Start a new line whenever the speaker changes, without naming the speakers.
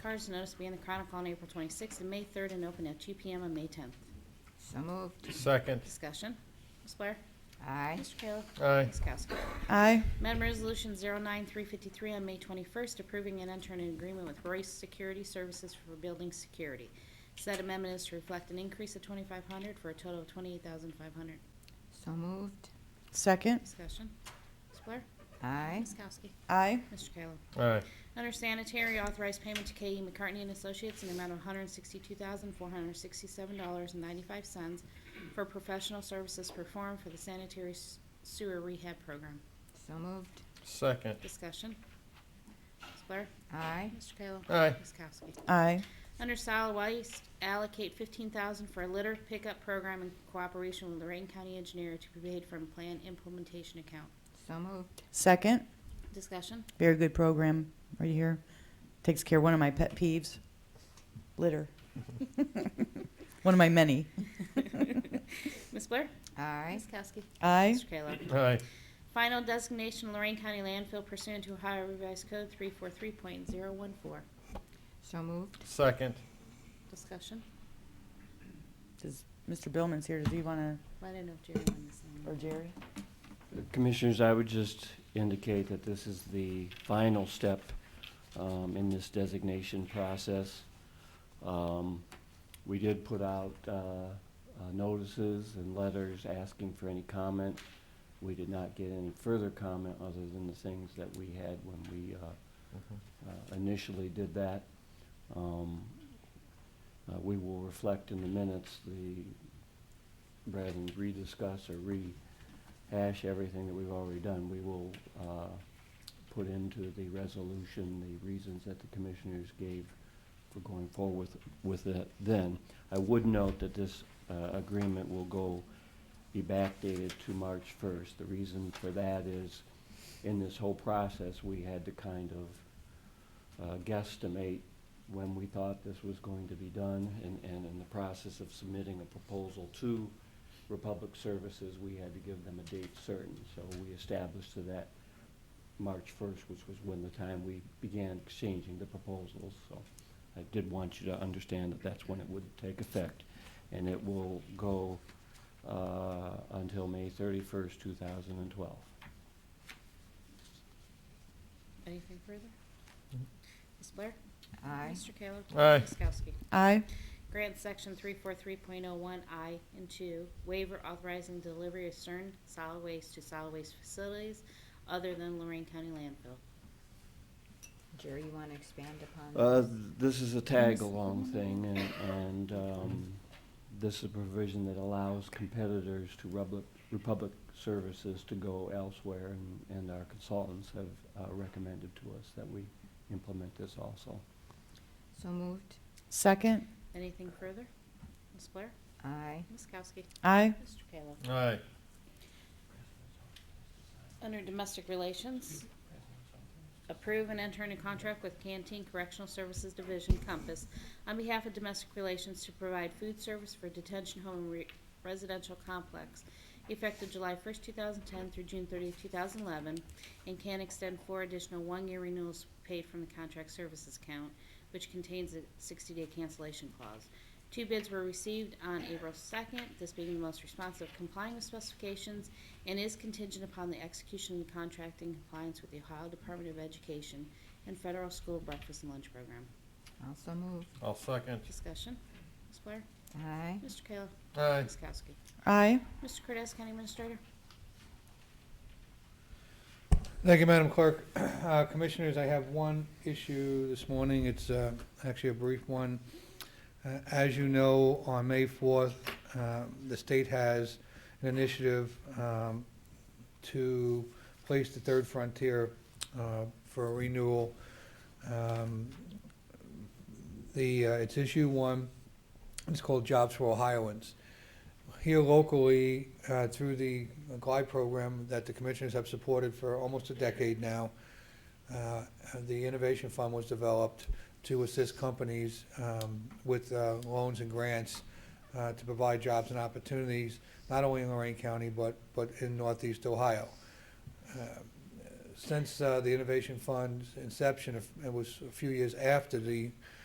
Cards notice being the Chronicle on April 26th and May 3rd and open at 2 PM on May 10th.
So moved.
Second.
Discussion. Ms. Blair?
Aye.
Mr. Kayla?
Aye.
Ms. Kowski?
aye,
Amendment Resolution 09353 on May 21st, approving and entering an agreement with Royce Security Services for building security. Said amendment is to reflect an increase of 2,500 for a total of 28,500.
So moved.
second,
Discussion. Ms. Blair?
Aye.
Ms. Kowski?
aye,
Mr. Kayla?
Aye.
Under sanitary, authorized payment to K.E. McCartney and Associates in the amount of $162,467.95 for professional services performed for the sanitary s- sewer rehab program.
So moved.
Second.
Discussion. Ms. Blair?
Aye.
Mr. Kayla?
Aye.
Ms. Kowski?
aye,
Under solid waste, allocate $15,000 for a litter pickup program in cooperation with Lorraine County Engineer to be paid from Plan Implementation Account.
So moved.
second.
Discussion.
Very good program right here. Takes care of one of my pet peeves, litter. One of my many.
Ms. Blair?
Aye.
Ms. Kowski?
Aye,
Mr. Kayla?
Aye.
Final designation Lorraine County landfill pursuant to Ohio Revised Code 343.014.
So moved.
Second.
Discussion?
does, Mr. Billman's here, does he wanna,
Well, I didn't know if Jerry wanted to say
or
anything.
Jerry?
Commissioners, I would just indicate that this is the final step um, in this designation process. Um, We did put out uh, uh, notices and letters asking for any comment. We did not get any further comment other than the things that we had when we uh,
Mm-hmm.
uh, initially did that. Um, uh, We will reflect in the minutes the, rather than rediscuss or rehash everything that we've already done, we will uh, put into the resolution the reasons that the commissioners gave for going forward with with it then. I would note that this uh, agreement will go, be backdated to March 1st. The reason for that is, in this whole process, we had to kind of uh, guesstimate when we thought this was going to be done, and, and in the process of submitting a proposal to Republic Services, we had to give them a date certain, so we established to that March first, which was when the time we began exchanging the proposals, so I did want you to understand that that's when it would take effect, and it will go, uh, until May thirty-first, two thousand and twelve.
Anything further? Mm-hmm. Ms. Blair?
Aye.
Mr. Kayla?
Aye.
Ms. Kowski?
Aye,
Grant Section 343.01I and 2, waiver authorizing delivery of certain solid waste to solid waste facilities other than Lorraine County landfill.
Jerry, you want to expand upon?
Uh, this is a tag-along thing, and, and, um, this is a provision that allows competitors to Republic, Republic Services to go elsewhere, and, and our consultants have uh, recommended to us that we implement this also.
So moved.
second,
Anything further? Ms. Blair?
Aye.
Ms. Kowski?
aye,
Mr. Kayla?
Aye.
Under Domestic Relations, approve and enter into contract with Canteen Correctional Services Division Compass on behalf of Domestic Relations to provide food service for detention home and re- residential complex effective July 1st, 2010 through June 30th, 2011, and can extend four additional one-year renewals paid from the contract services account, which contains a 60-day cancellation clause. Two bids were received on April 2nd, this being the most responsive complying with specifications and is contingent upon the execution of the contract in compliance with the Ohio Department of Education and Federal School Breakfast and Lunch Program.
Also moved.
I'll second.
Discussion. Ms. Blair?
Aye.
Mr. Kayla?
Aye.
Ms. Kowski?
aye,
Mr. Cortez, County Administrator?
Thank you, Madam Clerk. Uh, Commissioners, I have one issue this morning. It's uh, actually a brief one. Uh, As you know, on May 4th, uh, the state has an initiative um, to place the third frontier uh, for renewal. Um, The, uh, it's issue one, it's called Jobs for Ohioans. Here locally, uh, through the GLIDE program that the commissioners have supported for almost a decade now, uh, the Innovation Fund was developed to assist companies um, with uh, loans and grants uh, to provide jobs and opportunities, not only in Lorraine County, but, but in northeast Ohio. Uh, since uh, the Innovation Fund's inception, it was a few years after the